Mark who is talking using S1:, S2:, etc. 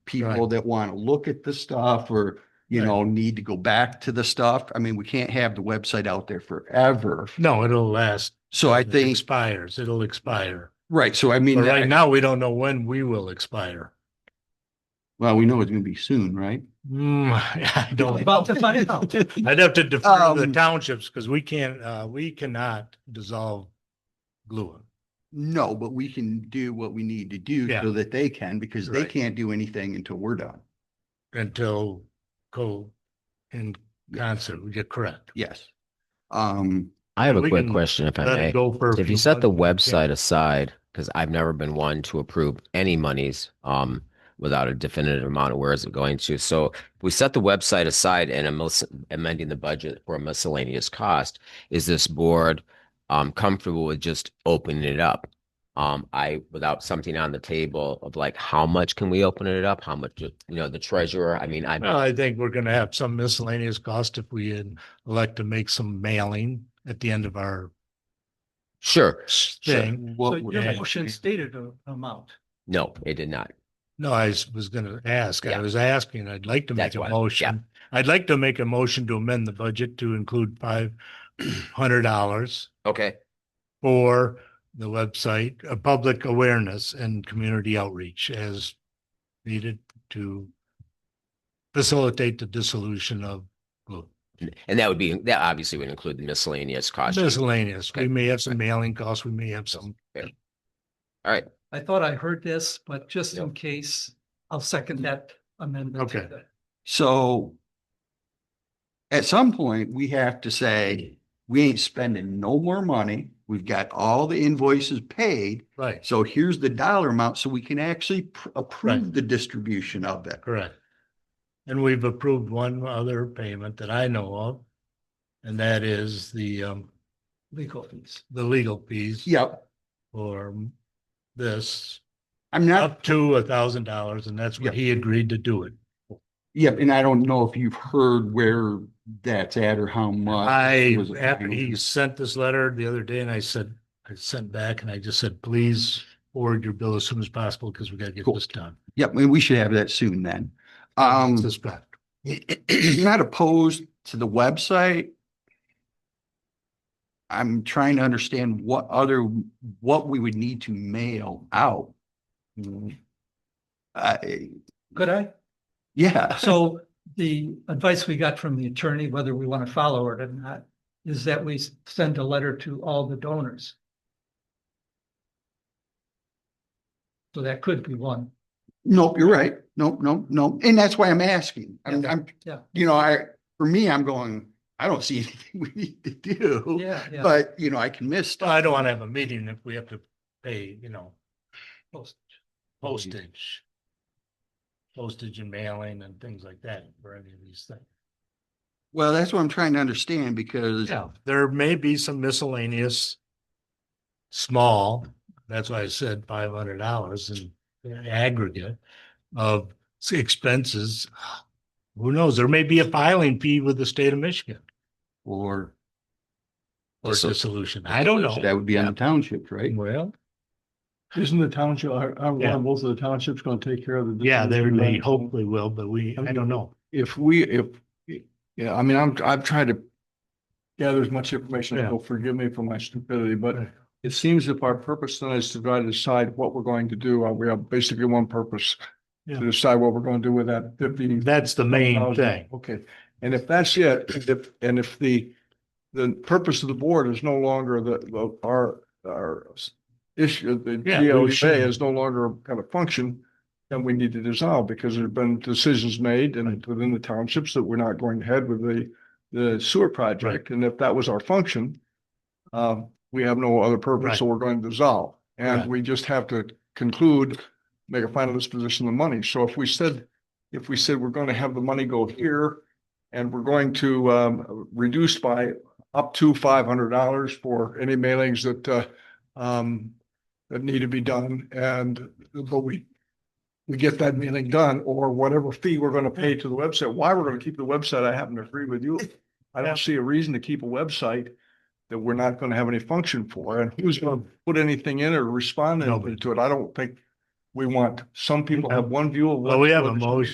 S1: people that want to look at the stuff or, you
S2: Right.
S1: know, need to go back to the stuff. I mean, we can't have the website out there forever.
S2: No, it'll last.
S1: So I
S2: It
S1: think,
S2: Expires, it'll expire.
S1: right, so I mean,
S2: But right
S1: that-
S2: now, we don't know when we will expire.
S1: well, we know it's going to be soon, right?
S2: Hmm, I don't.
S3: About to find out.
S2: I'd have to defer to the
S1: Um,
S2: townships because we can't, uh, we cannot dissolve GLUA.
S1: No, but we can do what we need to do
S2: Yeah.
S1: so that they can, because they
S2: Right.
S1: can't do anything until we're done.
S2: until co, in concert, you're correct.
S1: Yes. Um,
S4: I have a
S2: We
S4: quick
S2: can
S4: question, if I
S2: Let it
S4: may.
S2: go for a
S4: If
S2: few
S4: you set the
S2: months, yeah.
S4: website aside, because I've never been one to approve any monies um, without a definitive amount of where is it going to. So if we set the website aside and amos- amending the budget for a miscellaneous cost. Is this board um, comfortable with just opening it up? Um, I, without something on the table of like, how much can we open it up? How much, you know, the treasurer? I mean, I,
S2: Well, I think we're gonna have some miscellaneous cost if we in- elect to make some mailing at the end of our
S4: sure,
S2: thing.
S3: So
S1: what,
S3: your
S2: yeah.
S3: motion stated a- amount.
S4: no, it did not.
S2: No, I s- was gonna ask, I
S4: Yeah.
S2: was asking, I'd like to make
S4: That's
S2: a
S4: why, yeah.
S2: motion. I'd like to make a motion to amend the budget to include five hundred dollars
S4: Okay.
S2: for the website, uh, public awareness and community outreach as needed to facilitate the dissolution of blue.
S4: And that would be, that obviously would include the miscellaneous cost.
S2: miscellaneous. We
S4: Okay.
S2: may have some mailing costs, we may have some.
S4: All right.
S3: I thought I heard this, but just in case, I'll second that amendment. to
S2: Okay.
S3: the-
S1: so at some point, we have to say, we ain't spending no more money. We've got all the invoices paid.
S2: Right,
S1: So here's the dollar amount, so we can actually pr- approve the distribution of it.
S2: correct. And we've approved one other payment that I know of. And that is the um,
S3: Legal fees.
S2: the legal fees
S1: Yep,
S2: for this
S1: I'm not,
S2: up to a thousand dollars and that's what
S1: Yeah.
S2: he agreed to do it.
S1: yep, and I don't know if you've heard where that's at or how much.
S2: I,
S1: was Uh, it
S2: after
S1: final?
S2: he sent this letter the other day and I said, I sent back and I just said, please forward your bill as soon as possible because we gotta get
S1: Cool.
S2: this done.
S1: Yep, and we should have that soon then. Um,
S2: This back.
S1: not opposed to the website. I'm trying to understand what other, what we would need to mail out. I
S3: Could I?
S1: yeah,
S3: So the advice we got from the attorney, whether we want to follow it or not, is that we s- send a letter to all the donors. So that could be one.
S1: nope, you're right. Nope, nope, nope. And that's why I'm asking. I'm,
S3: Yeah.
S1: I'm,
S3: Yeah.
S1: you know, I, for me, I'm going, I don't see anything we need to do.
S3: Yeah, yeah.
S1: But, you know, I can miss
S2: Well,
S1: stuff.
S2: I don't want to have a meeting if we have to pay, you know,
S3: Post.
S2: postage. Postage and mailing and things like that for any of these things.
S1: Well, that's what I'm trying to understand because
S2: Yeah, there may be some miscellaneous. Small, that's why I said five hundred dollars in aggregate of expenses. Who knows? There may be a filing fee with the state of Michigan
S1: or
S2: or
S4: Dissol-
S2: dissolution. I don't
S1: that
S2: know.
S1: would be on the townships, right?
S2: Well,
S5: Isn't the township, are, are one
S2: Yeah.
S5: of both of the townships gonna take care of the?
S2: yeah, they
S5: distribution
S2: may
S5: then?
S2: hopefully will, but we, I don't know.
S5: If we, if, yeah, I mean, I'm, I've tried to gather as much information,
S2: Yeah.
S5: so forgive me for my stupidity, but
S2: Right.
S5: it seems if our purpose then is to try to decide what we're going to do, uh, we have basically one purpose
S2: Yeah.
S5: to decide what we're going to do with that fifteen
S2: That's the main
S5: thousand.
S2: thing.
S5: Okay, and if that's it, and if, and if the, the purpose of the board is no longer the- the, our, our issue, the
S2: Yeah, we
S5: GOA
S2: should.
S5: is no longer kind of function, then we need to dissolve, because there've been decisions made and within the townships that we're not going ahead with the, the sewer project, and if that was our function, um, we have no other
S2: Right.
S5: purpose, so we're going to dissolve, and
S2: Right.
S5: we just have to conclude, make a final disposition of the money, so if we said, if we said we're gonna have the money go here, and we're going to um reduce by up to five hundred dollars for any mailings that uh um that need to be done and but we we get that mailing done or whatever fee we're gonna pay to the website. Why we're gonna keep the website, I happen to agree with you. I
S2: Yeah.
S5: don't see a reason to keep a website that we're not gonna have any function for and who's gonna put anything in or respond
S2: Nobody.
S5: to it. I don't think
S2: we want. Some people have one view of. what-
S5: Well, we have a
S2: what-
S5: motion.